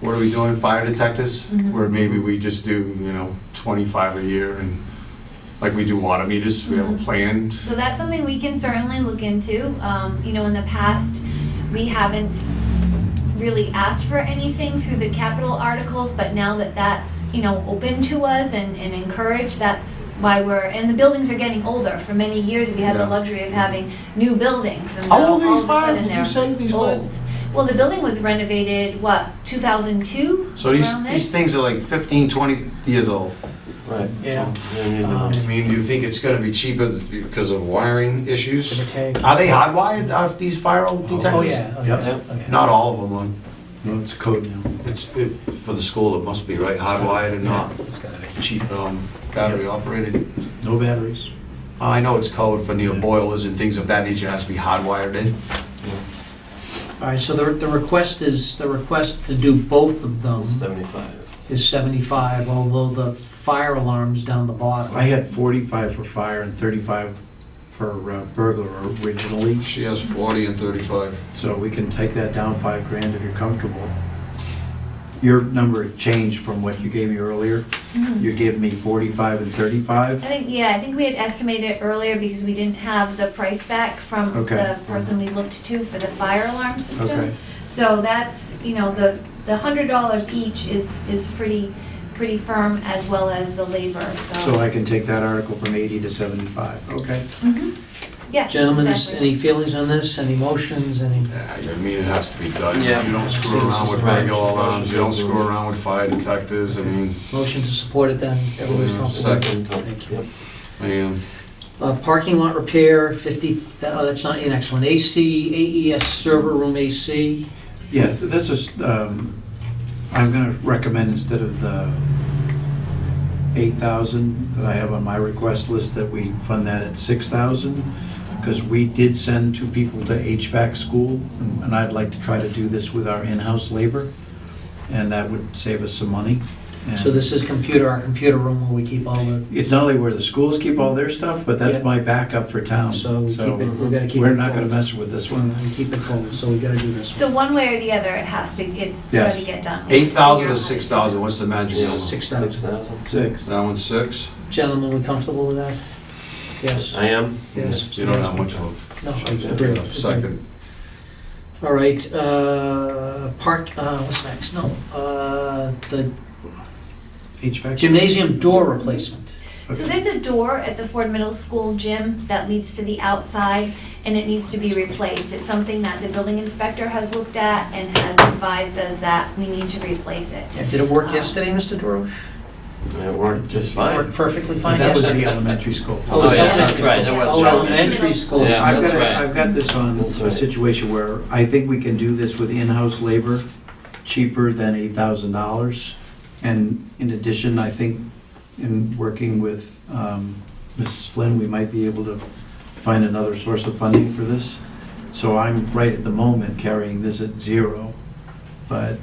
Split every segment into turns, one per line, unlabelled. what are we doing, fire detectors?
Mhm.
Where maybe we just do, you know, twenty-five a year and, like we do water meters, we have a
Mhm.
plan.
So that's something we can certainly look into. Um, you know, in the past, we haven't really asked for anything through the capital articles, but now that that's, you know, open to us and, and encouraged, that's why we're, and the buildings are getting older. For many years, we had
Yeah.
the luxury of having new buildings and
How
now
old are
all
these
of a sudden
fires? Did you
they're
say these fires-
old. Well, the building was renovated, what, two thousand two?
So these, these things are like 15, 20 years old.
Right.
Yeah.
I mean,
Um,
I mean, do you think it's gonna be cheaper because of wiring
Give or
issues?
take.
Are they hardwired, uh, these fire detectors?
Oh, yeah. oh, yeah,
Yep.
okay.
Not all of them, are.
No, it's a code now.
It's, it, for the school, it must be, right, hardwired and not
It's gotta be.
cheap, um, battery operated.
No batteries.
I know it's code for new boilers and things of that nature, it has to be hardwired in.
All right, so the, the request is, the request to do both of them
Seventy-five.
is 75, although the fire alarm's down the bottom.
I had 45 for fire and 35 for uh, burglar originally,
She has 40 and 35.
so we can take that down five grand if you're comfortable. Your number changed from what you gave me earlier.
Mhm.
You gave me 45 and
I
35.
think, yeah, I think we had estimated it earlier because we didn't have the price back from
Okay.
the person we looked to for the fire alarm system.
Okay.
So that's, you know, the, the hundred dollars each is, is pretty, pretty firm as well as the labor, so.
So I can take that article from 80 to 75. Okay.
Mhm. Yeah.
Gentlemen, is-
exactly.
any feelings on this, any motions, any?
I mean, it has to be done.
Yeah.
You don't screw around with
Right.
regular alarms, you don't screw around with fire detectors, I mean,
Motion to support it then,
Mm,
everybody's
Yeah,
comfortable.
second.
Thank you.
man.
Uh, Parking lot repair, 50, oh, that's not your next one, AC, AES E server room AC.
Yeah, this is, um, I'm going to recommend instead of the 8,000 that I have on my request list, that we fund that at 6,000, because we did send two people to HVAC school, and I'd like to try to do this with our in-house labor, and that would save us some money. And
So this is computer, our computer room where we keep all the,
It's not only where the schools keep all their stuff, but
Yeah.
that's my backup for town.
so we keep it,
Um, So
we gotta keep it.
we're not going
cold.
to mess with this
We're
one.
gonna keep it cold, so we gotta do this
So one way or the other, it has to, it's
Yes.
gotta get done.
8,000 to 6,000, what's the magic
one.
number?
Six thousand.
thousand?
Six.
That one's six?
Gentlemen, we comfortable with that? Yes,
I am.
yes.
You don't have much of
No, I
a
agree.
second.
All right, uh, park, uh, what's next? No, uh, the
HVAC?
gymnasium door replacement.
So there's a door at the Ford Middle School gym that leads to the outside, and it needs to be replaced. It's something that the building inspector has looked at and has advised us that we need to replace it.
Did it work yesterday, Mr. Dorosh?
It worked just
Worked
fine.
perfectly fine
That was
yesterday?
the elementary school.
Oh, it was
Oh, yeah,
elementary
that's right,
school.
that was
Oh,
elementary.
elementary school.
Yeah.
I've got,
that's
it-
right.
I've got this on
That's
a
right.
situation where I think we can do this with in-house labor cheaper than eight thousand dollars. And in addition, I think in working with um, Mrs. Flynn, we might be able to find another source of funding for this. So I'm right at the moment carrying this at zero, but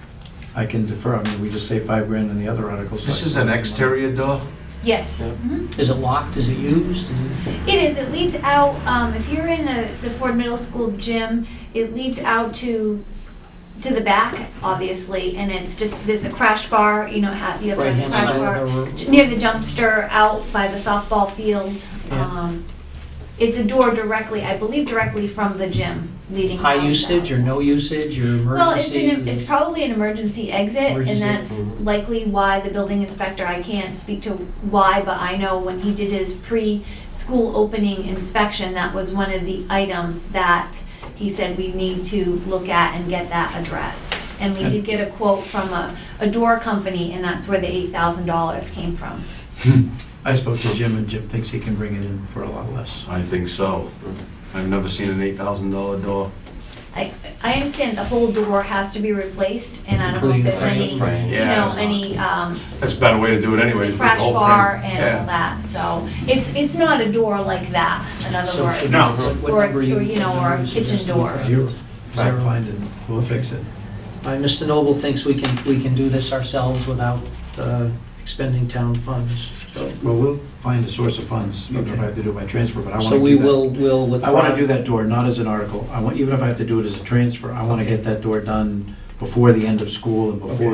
I can defer. I mean, we just save five grand in the other articles.
This is an exterior door?
Yes. Mhm.
Is it locked, is it used? Is it-
It is, it leads out, um, if you're in the, the Ford Middle School gym, it leads out to, to the back, obviously, and it's just, there's a crash bar, you know, at the other
Right-hand
crash
side
bar.
of the room?
near the dumpster out by the softball field.
Yeah.
Um, It's a door directly, I believe directly from the gym leading. out
High
of the
usage or
house.
no usage or
Well, it's
emergency?
an, it's probably an emergency exit and
Emergency, Mm-hmm.
that's
mhm.
likely why the building inspector, I can't speak to why, but I know when he did his pre-school opening inspection, that was one of the items that he said we need to look at and get that addressed. And we did get a quote from a, a door company and that's where the eight thousand dollars came from.
I spoke to Jim and Jim thinks he can bring it in for a lot less.
I think so. I've never seen an $8,000 door.
I, I understand the whole door has to be replaced, and I don't know
Including
if
the
there's
frame.
any, you
Frame.
Yeah,
know,
it's-
any, um,
That's a better way to do it anyway.
the
is with
crash
whole frame.
bar and
Yeah.
all that, so, it's, it's not a door like that, in other
So should-
words.
No.
what- what
Or-
number you-
or, you know,
what
or a
number you
kitchen
suggest?
door.
Zero.
Zero.
Zero. Find it. We'll fix it.
All right, Mr. Noble thinks we can, we can do this ourselves without uh, expending town funds. So-
Well, we'll find a source of funds, even if I have to do it by transfer, but I want to
So we will, will withdraw.
I want to do that door, not as an article. I want, even if I have to do it as a transfer, I want to
Okay.
get that door done before the end of school and before
Okay.